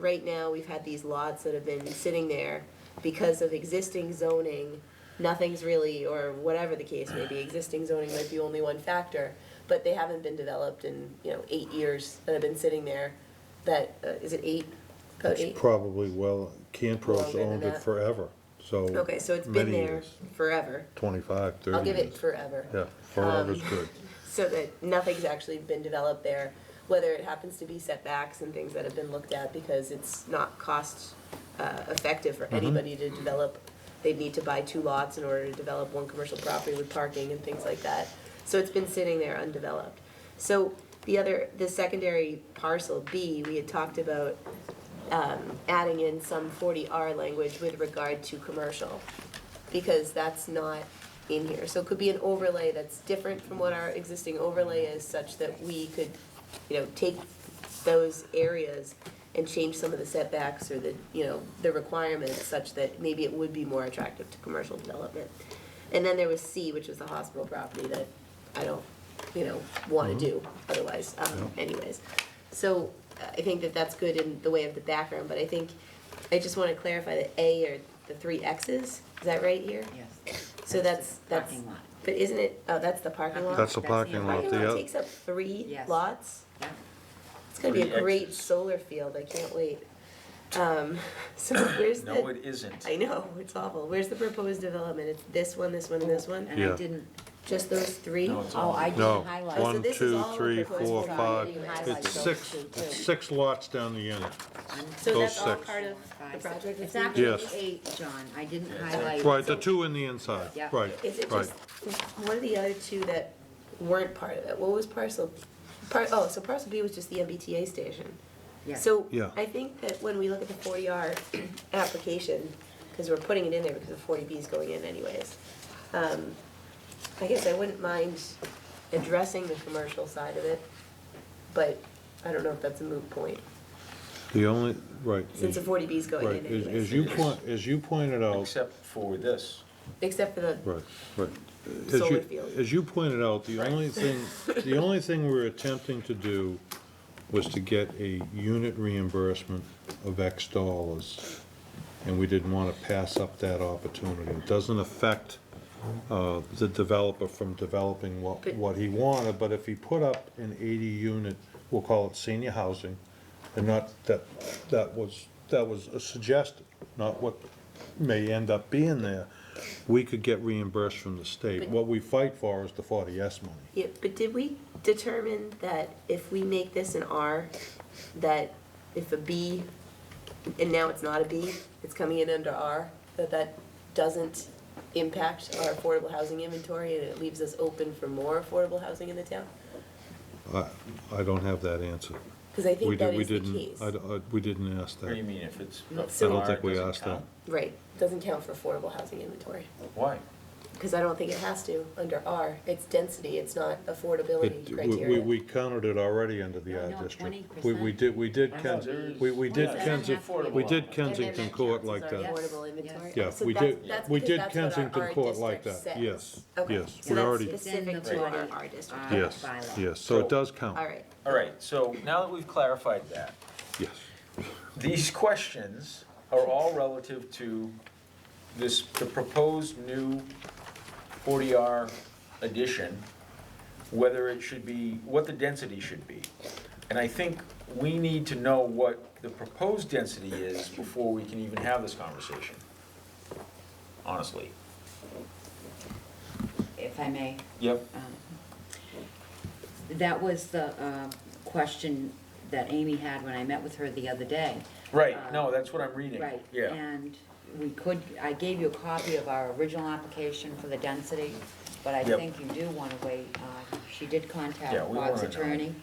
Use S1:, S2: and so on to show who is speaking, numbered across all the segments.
S1: right now, we've had these lots that have been sitting there because of existing zoning, nothing's really, or whatever the case may be, existing zoning might be only one factor, but they haven't been developed in, you know, eight years that have been sitting there, that, uh, is it eight? About eight?
S2: It's probably well, Canpro's
S1: Longer than
S2: owned it
S1: that.
S2: forever, so.
S1: Okay, so it's been
S2: many
S1: there
S2: years.
S1: forever.
S2: Twenty-five, thirty years.
S1: I'll give it forever.
S2: Yeah, forever's
S1: Um,
S2: good.
S1: So that nothing's actually been developed there, whether it happens to be setbacks and things that have been looked at because it's not cost uh, effective for anybody to develop. They'd need to buy two lots in order to develop one commercial property with parking and things like that. So it's been sitting there undeveloped. So the other, the secondary parcel B, we had talked about um, adding in some 40R language with regard to commercial because that's not in here. So it could be an overlay that's different from what our existing overlay is, such that we could, you know, take those areas and change some of the setbacks or the, you know, the requirements such that maybe it would be more attractive to commercial development. And then there was C, which was the hospital property that I don't, you know, wanna do otherwise, um, anyways. So uh, I think that that's good in the way of the background, but I think, I just wanna clarify that A are the three X's, is that right here?
S3: Yes.
S1: So that's,
S3: the
S1: that's,
S3: Parking lot,
S1: but isn't it, oh, that's the parking lot?
S2: That's the
S3: That's the
S2: parking lot,
S1: Parking
S2: the
S1: lot
S2: other,
S1: takes up three
S3: Yes.
S1: lots?
S3: yeah.
S1: It's gonna be a
S4: Three
S1: great
S4: exits.
S1: solar field, I can't wait. Um, so where's
S4: No,
S1: the,
S4: it isn't.
S1: I know, it's awful, where's the proposed development? It's this one, this one, and this one?
S3: And
S2: Yeah.
S3: I didn't,
S1: Just those three?
S4: No, it's
S3: oh,
S4: all-
S3: I didn't
S2: Oh. no,
S3: highlight.
S1: So
S2: one,
S1: this is
S2: two,
S1: all of
S2: three,
S1: the proposed
S2: four,
S1: property.
S2: five,
S3: You highlight
S2: it's
S3: those
S2: six,
S3: two, too.
S2: it's six lots down the end.
S1: So
S2: Those
S1: that's all
S2: six.
S1: part of the
S3: Five, six.
S1: project?
S3: It's
S1: isn't it?
S3: actually
S2: Yes.
S3: eight, John, I didn't
S4: Yeah, it's
S3: highlight.
S2: Right, the two in the inside,
S3: Yeah.
S2: right,
S1: Is it
S2: right.
S1: just, what are the other two that weren't part of it? What was parcel, par, oh, so parcel B was just the MBTA station?
S3: Yeah.
S1: So
S2: Yeah.
S1: I think that when we look at the forty R application, because we're putting it in there because the forty B is going in anyways. um, I guess I wouldn't mind addressing the commercial side of it, but I don't know if that's a moot point,
S2: The only, right.
S1: since the
S2: as-
S1: forty B is going
S2: Right,
S1: in
S2: as, as
S1: anyways.
S2: you point, as you pointed out,
S4: Except for this.
S1: Except for the,
S2: Right, right. As
S1: Solar
S2: you-
S1: field.
S2: As you pointed out, the only thing, the only thing we were attempting to do was to get a unit reimbursement of X dollars, and we didn't want to pass up that opportunity. It doesn't affect uh, the developer from developing what,
S1: But-
S2: what he wanted, but if he put up an 80-unit, we'll call it senior housing, and not, that, that was, that was a suggested, not what may end up being there, we could get reimbursed from the state. What we fight for is the 40S money.
S1: yeah, but did we determine that if we make this an R, that if a B, and now it's not a B, it's coming in under R, that that doesn't impact our affordable housing inventory and it leaves us open for more affordable housing in the town?
S2: I, I don't have that answer.
S1: Because I
S2: We
S1: think that
S2: did, we
S1: is the
S2: didn't,
S1: case.
S2: I, d- I- we didn't ask
S4: What do you
S2: that.
S4: mean, if it's.
S1: I
S2: I
S1: So-
S2: don't think we
S4: doesn't
S2: asked that.
S4: count?
S1: Right, doesn't count for affordable housing inventory,
S4: Why?
S1: because I don't think it has to under R. It's density, it's not
S2: It-
S1: affordability
S2: we- We,
S1: criteria.
S2: we counted it already under the
S3: No,
S2: R
S3: no,
S2: district. We, we did, we did,
S4: I know,
S2: Ken-
S4: there's-
S2: we, we did
S4: Well, it doesn't
S2: Kensington,
S4: have to be
S2: we
S4: a
S2: did
S4: lot.
S2: Kensington Court like
S1: And then
S2: that.
S1: that counts as our
S3: Yes.
S1: affordable inventory.
S2: Yeah,
S1: So
S2: we
S1: that's-
S2: did-
S1: that's
S2: we
S1: because
S2: did
S1: that's what our
S2: Kensington
S1: R
S2: Court like
S1: district
S2: that.
S1: says.
S2: Yes,
S1: Okay,
S2: yes.
S1: so
S2: We
S1: that's
S2: already-
S1: Specific
S3: Right.
S1: to our R district.
S3: Uh,
S2: Yes,
S3: bylaw.
S2: yes, so it does count.
S1: All right,
S4: All right, so now that we've clarified that,
S2: Yes.
S4: these questions are all relative to this, the proposed new 40R addition, whether it should be, what the density should be. And I think we need to know what the proposed density is before we can even have this conversation, honestly.
S3: If I may,
S4: Yep.
S3: um, that was the uh, question that Amy had when I met with her the other day. Um,
S4: Right, no, that's what I'm reading.
S3: Right,
S4: Yeah.
S3: and we could, I gave you a copy of our original application for the density, but I
S4: Yep.
S3: think you do want to wait, uh, she did contact
S4: Yeah, we
S3: Bob's
S4: wanna know.
S3: attorney.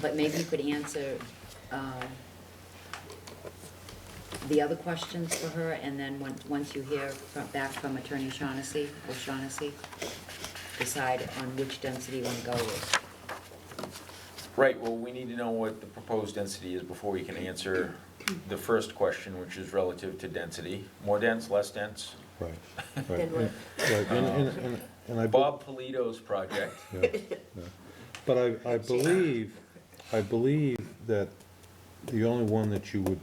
S3: But maybe you could answer, um, the other questions for her, and then when, once you hear from, back from Attorney Shaughnessy, or Shaughnessy, decide on which density you want to go with.
S4: Right, well, we need to know what the proposed density is before we can answer the first question, which is relative to density. More dense, less dense?
S2: Right, right.
S1: Then
S2: And-
S1: what?
S2: right, And, and, and- and I. bu-
S4: Bob Polito's project.
S2: Yeah, yeah. But I, I believe, I believe that the only one that you would